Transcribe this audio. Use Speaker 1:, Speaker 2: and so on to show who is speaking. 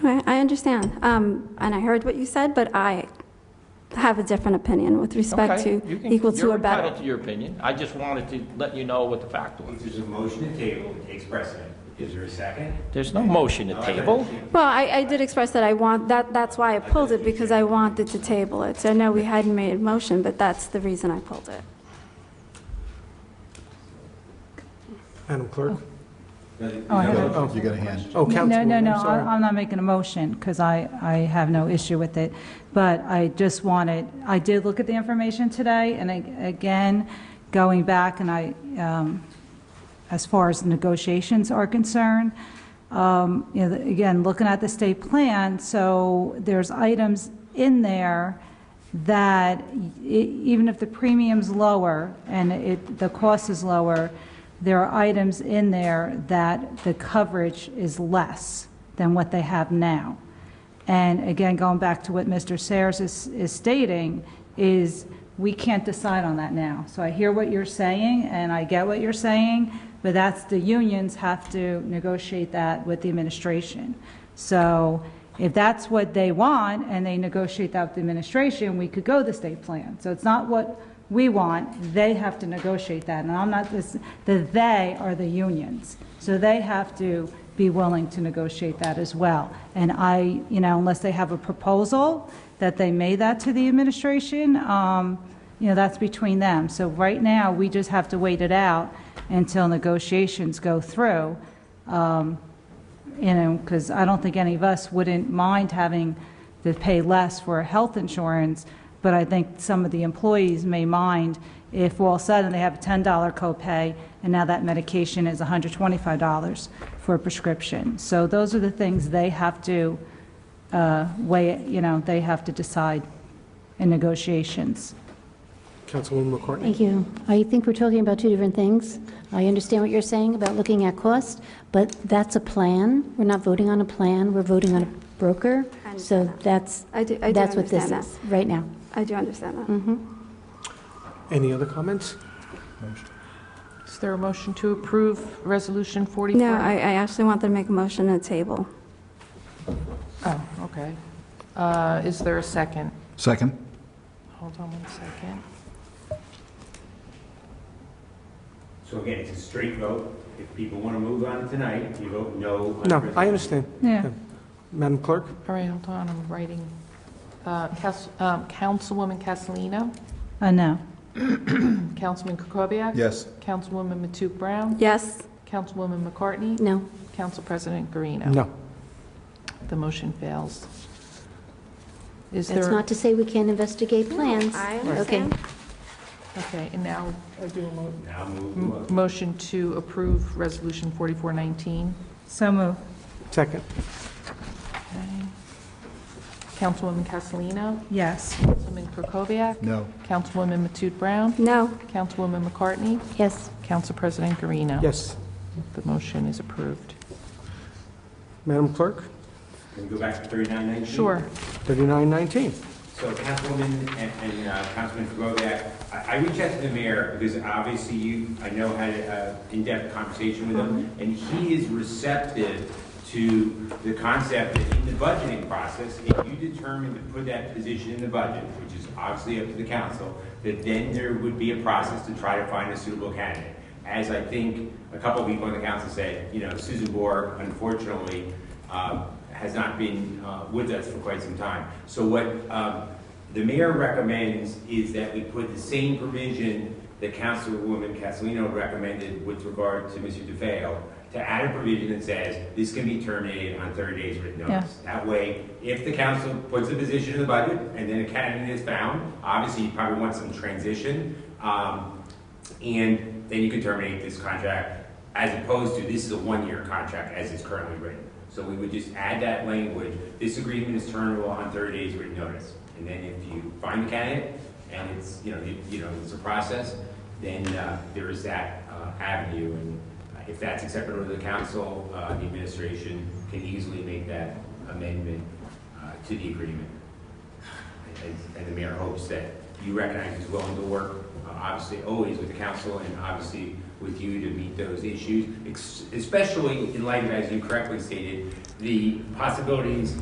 Speaker 1: Right, I understand, um, and I heard what you said, but I have a different opinion with respect
Speaker 2: Okay,
Speaker 1: to
Speaker 2: you can-
Speaker 1: equal to or
Speaker 2: You're
Speaker 1: better.
Speaker 2: entitled to your opinion. I just wanted to let you know what the fact was.
Speaker 3: If there's a motion to table, it takes precedent. Is there a second?
Speaker 2: There's no
Speaker 1: Mm-hmm.
Speaker 2: motion to table.
Speaker 1: Well, I, I did express that I want, that, that's why I pulled it, because I wanted to table it. So I know we hadn't made a motion, but that's the reason I pulled it.
Speaker 4: Madam Clerk?
Speaker 5: Oh, I have
Speaker 4: Oh,
Speaker 6: You got a hand.
Speaker 4: Oh, Councilwoman,
Speaker 5: No, no, no,
Speaker 4: I'm
Speaker 5: I-
Speaker 4: sorry.
Speaker 5: I'm not making a motion, because I, I have no issue with it. But I just wanted, I did look at the information today, and I- again, going back, and I, um, as far as negotiations are concerned, um, you know, again, looking at the state plan, so there's items in there that e- even if the premium's lower and it, the cost is lower, there are items in there that the coverage is less than what they have now. And again, going back to what Mr. Sayers is, is stating, is we can't decide on that now. So I hear what you're saying, and I get what you're saying, but that's, the unions have to negotiate that with the administration. So if that's what they want, and they negotiate that with the administration, we could go the state plan. So it's not what we want, they have to negotiate that. And I'm not, this- the "they" are the unions. So they have to be willing to negotiate that as well. And I, you know, unless they have a proposal that they made that to the administration, um, you know, that's between them. So right now, we just have to wait it out until negotiations go through, um, you know, because I don't think any of us wouldn't mind having to pay less for health insurance, but I think some of the employees may mind if all of a sudden they have a $10 copay, and now that medication is $125 for a prescription. So those are the things they have to uh, weigh, you know, they have to decide in negotiations.
Speaker 4: Councilwoman McCartney?
Speaker 7: Thank you. I think we're talking about two different things. I understand what you're saying about looking at cost, but that's a plan. We're not voting on a plan, we're voting on a broker.
Speaker 1: I
Speaker 7: So
Speaker 1: understand that.
Speaker 7: that's,
Speaker 1: I do- I do
Speaker 7: that's what this
Speaker 1: understand
Speaker 7: is, right now. Mm-hmm.
Speaker 1: I do understand that.
Speaker 4: Any other comments?
Speaker 8: Is there a motion to approve Resolution 44?
Speaker 1: No, I, I actually wanted to make a motion to table.
Speaker 8: Oh, okay. Uh, Is there a second?
Speaker 6: Second?
Speaker 8: Hold on one second.
Speaker 3: So again, it's a straight vote. If people want to move on tonight, you vote no. on
Speaker 4: No, I
Speaker 3: resolution.
Speaker 4: understand.
Speaker 5: Yeah.
Speaker 4: Madam Clerk?
Speaker 8: All right, hold on, I'm writing. Uh, Cas- um, Councilwoman Castellino,
Speaker 5: Uh, no.
Speaker 8: Councilman Kukoviac?
Speaker 6: Yes.
Speaker 8: Councilwoman Matute Brown,
Speaker 1: Yes,
Speaker 8: Councilwoman McCartney,
Speaker 7: No,
Speaker 8: Council President Garino.
Speaker 4: No.
Speaker 8: The motion fails. Is
Speaker 7: that's
Speaker 8: there,
Speaker 7: not to say we can't investigate plans.
Speaker 1: I
Speaker 7: Okay.
Speaker 1: understand.
Speaker 8: okay, and now I do a mo-
Speaker 3: Now move the
Speaker 8: m-
Speaker 3: vote.
Speaker 8: motion to approve Resolution 4419.
Speaker 5: So move.
Speaker 4: Second?
Speaker 8: Okay. Councilwoman Castellino,
Speaker 5: Yes.
Speaker 8: Councilman Kukoviac?
Speaker 6: No.
Speaker 8: Councilwoman Matute Brown,
Speaker 1: No,
Speaker 8: Councilwoman McCartney,
Speaker 7: Yes.
Speaker 8: Council President Garino.
Speaker 4: Yes.
Speaker 8: The motion is approved.
Speaker 4: Madam Clerk?
Speaker 3: Can we go back to 3919?
Speaker 8: Sure.
Speaker 4: 3919.
Speaker 3: So Councilwoman and and, uh, Councilman Kukoviac, I I reached out to the mayor because obviously you, I know, had an in-depth conversation with him, and he is receptive to the concept that in the budgeting process, if you determine to put that position in the budget, which is obviously up to the council, that then there would be a process to try to find a suitable candidate. As I think a couple of people on the council said, you know, Susan Bohr, unfortunately, uh, has not been uh, with us for quite some time. So what um, the mayor recommends is that we put the same provision that Councilwoman Castellino recommended with regard to Mr. DeFeo, to add a provision that says this can be terminated on 30 days written notice. That way, if the council puts a position in the budget and then a candidate is found, obviously you probably want some transition, um, and then you can terminate this contract as opposed to this is a one-year contract as it's currently written. So we would just add that language, this agreement is terminable on 30 days written notice. And then if you find a candidate and it's, you know, you you know, it's a process, then uh, there is that uh, avenue. And uh, if that's acceptable to the council, uh, the administration can easily make that amendment uh, to the agreement. And- And the mayor hopes that you recognize he's willing to work, uh, obviously, always with the council and obviously with you to meet those issues, ex- especially in light of, as you correctly stated, the possibilities